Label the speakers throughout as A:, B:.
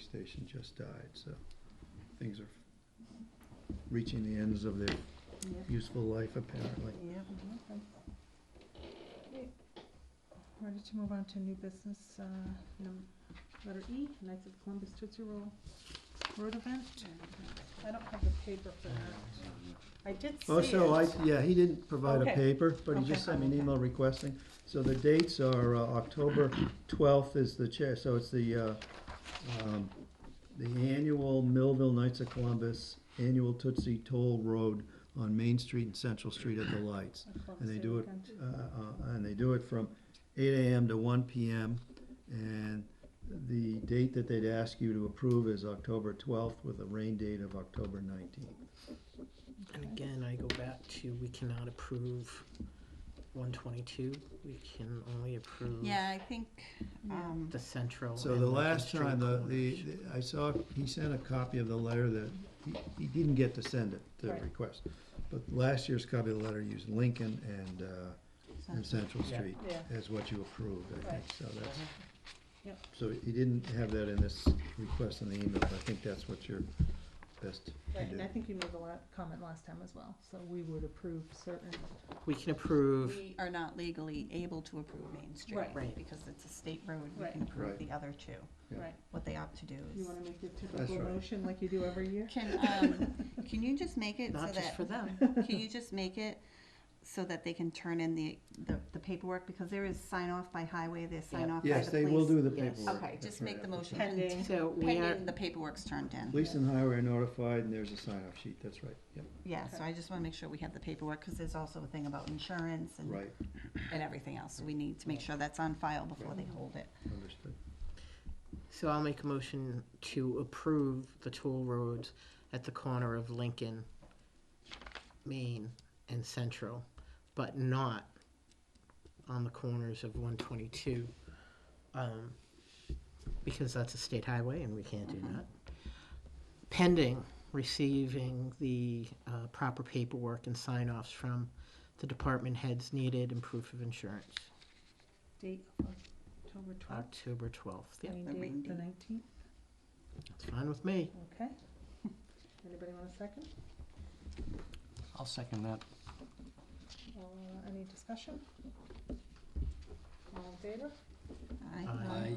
A: station just died, so things are reaching the ends of their
B: Yep,
A: useful life apparently.
B: yep, okay. Okay. Ready to move on to new business, uh, num- letter E, Knights of Columbus Tootsie Roll Road Event. I don't have the paper for that. I did see it.
A: Also, Oh, I, yeah, he didn't provide a
B: Okay.
A: paper, but he
B: Okay.
A: just sent me an email requesting. So the dates are uh, October twelfth is the chair, so it's the, uh, um, the annual Millville Knights of Columbus Annual Tootsie Toll Road on Main Street and Central Street at the lights. And they do it, uh, uh, and they do it from eight AM to one PM. And the date that they'd ask you to approve is October twelfth with a rain date of October nineteenth.
C: And again, I go back to, we cannot approve one twenty-two, we can only
A: Mm-hmm.
C: approve
D: Yeah, I think, um,
C: the central.
A: So
C: and
A: the
C: Lincoln
A: last
C: Street
A: time, the,
C: corners.
A: the, the- I saw, he sent a copy of the letter that, he, he didn't get to send it, the
B: Right.
A: request. But last year's copy of the letter used Lincoln and, uh, and Central
C: Yeah.
A: Street
B: Yeah.
A: as what you approved, I think,
B: Right.
A: so that's.
D: Uh-huh.
B: Yep.
A: So he didn't have that in this request in the email, but I think that's what you're best to
B: Right, and I
A: do.
B: think you made the la- comment last time as well, so we would approve certain,
C: We can approve,
D: we are not legally able to approve Main Street.
B: Right.
C: Right.
D: Because it's a state road, we
B: Right.
D: can approve
A: Right.
D: the other two.
A: Yeah.
B: right,
D: What they opt to do
B: you
D: is.
B: wanna make your
A: That's
B: typical
A: right.
B: motion like you do every year?
D: Can, um, can you just make it so
C: not just
D: that,
C: for them,
D: can you just make it so that they can turn in the, the the paperwork? Because there is sign off by highway, there's sign
C: Yeah.
D: off by the police.
A: Yes, they will do the
C: Yes.
A: paperwork.
D: Okay,
A: That's
D: just
A: right,
D: make the
A: that's
D: motion
A: right.
B: Pending.
D: and-
C: so we are,
D: pending the paperwork's turned in.
A: Police and highway are notified and there's a sign-off sheet, that's right, yep,
D: Yeah, so I just wanna make sure we have the paperwork, cause there's also a thing about insurance and,
A: right,
D: and everything else. So We need to make sure that's on file before they hold it.
A: understood.
C: so I'll make a motion to approve the toll roads at the corner of Lincoln, Main and Central, but not on the corners of one twenty-two. Um, because that's a state highway and we can't do that. Pending receiving the, uh, proper paperwork and sign-offs from the department heads needed and proof of insurance,
B: Date of October twelfth,
C: October twelfth, yeah,
B: rain
D: Uh, the rain
B: date, the
D: date.
B: nineteenth,
C: that's fine with me.
B: okay? Anybody want a second?
E: I'll second that.
B: Uh, any discussion? All in favor?
D: Aye.
E: Aye.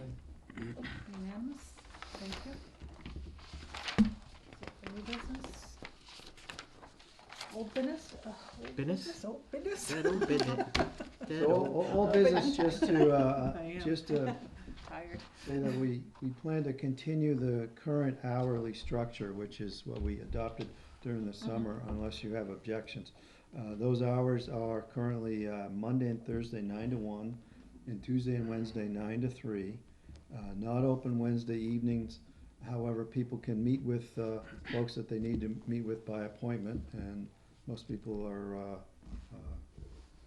B: Unanimous, thank you. So, for new business? Old business? Ugh, old
C: Business?
B: Old business?
C: That old business, that
A: So
C: old-
A: all, all business just to,
B: I
A: uh,
B: am.
A: just to
B: Tired.
A: say that we, we plan to continue the current hourly structure, which is what we adopted during the
B: Mm-hmm.
A: summer, unless you have objections. Uh, those hours are currently, uh, Monday and Thursday, nine to one, and Tuesday and Wednesday,
B: Mm-hmm.
A: nine to three. Uh, not open Wednesday evenings, however, people can meet with, uh, folks that they need to meet with by appointment, and most people are, uh, uh,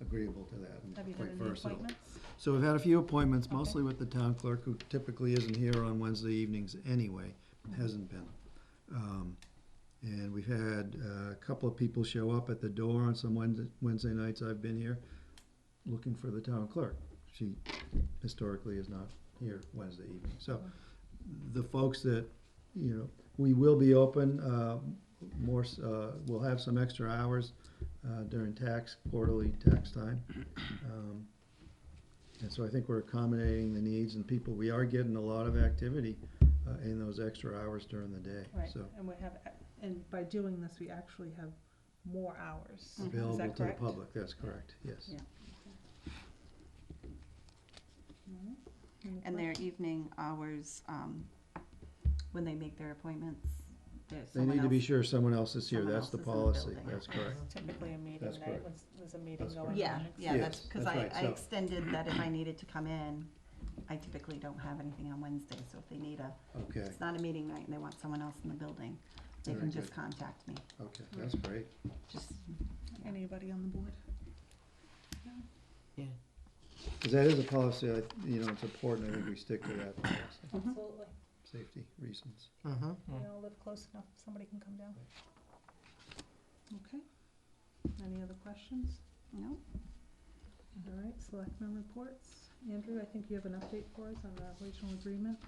A: agreeable to that and
B: Have you
A: quite
B: done any
A: versatile.
B: appointments?
A: So we've had a few appointments,
B: Okay.
A: mostly with the town clerk, who typically isn't here on Wednesday evenings anyway, hasn't been. Um, And we've had uh, a couple of people show up at the door on some Wednesday, Wednesday nights I've been here, looking for the town clerk. She historically is not here Wednesday evening. So the folks that, you know, we will be open, uh, more, s- uh, we'll have some extra hours uh, during tax, quarterly tax time. Um, and so I think we're accommodating the needs and people, we are getting a lot of activity uh, in those extra hours during the day,
B: Right,
A: so.
B: and we have, and by doing this, we actually have more hours. Is
D: Mm-hmm.
A: Available
B: that
A: to the
B: correct?
A: public, that's correct, yes.
B: Yeah. Mhm. Any
D: And their evening hours, um, when they make their appointments, there's
A: They
D: someone
A: need to be
D: else-
A: sure someone else is here,
D: someone
A: that's the
D: else is in the
A: policy,
D: building.
A: that's correct.
B: Typically a meeting
A: That's
B: night,
A: correct.
B: was, was a meeting
A: That's
B: going on.
A: correct.
D: Yeah, yeah, that's,
A: Yes,
D: cause
A: that's
D: I,
A: right,
D: I
A: so-
D: extended that if I needed to come in, I typically don't have anything on Wednesday, so if they need a,
A: Okay,
D: it's not a meeting night and they want someone else in the building, they
A: Very
D: can just
A: good.
D: contact me,
A: okay, that's great.
D: just,
B: Anybody on the board?
A: Because that is a policy, I- you know, it's important, I think we stick to that policy,
D: Mm-hmm.
B: Absolutely.
A: safety reasons.
C: Mhm.
B: We all live close enough, somebody can come down. Okay. Any other questions?
D: no,
B: All right, selectmen reports. Andrew, I think you have an update for us on the regional agreement.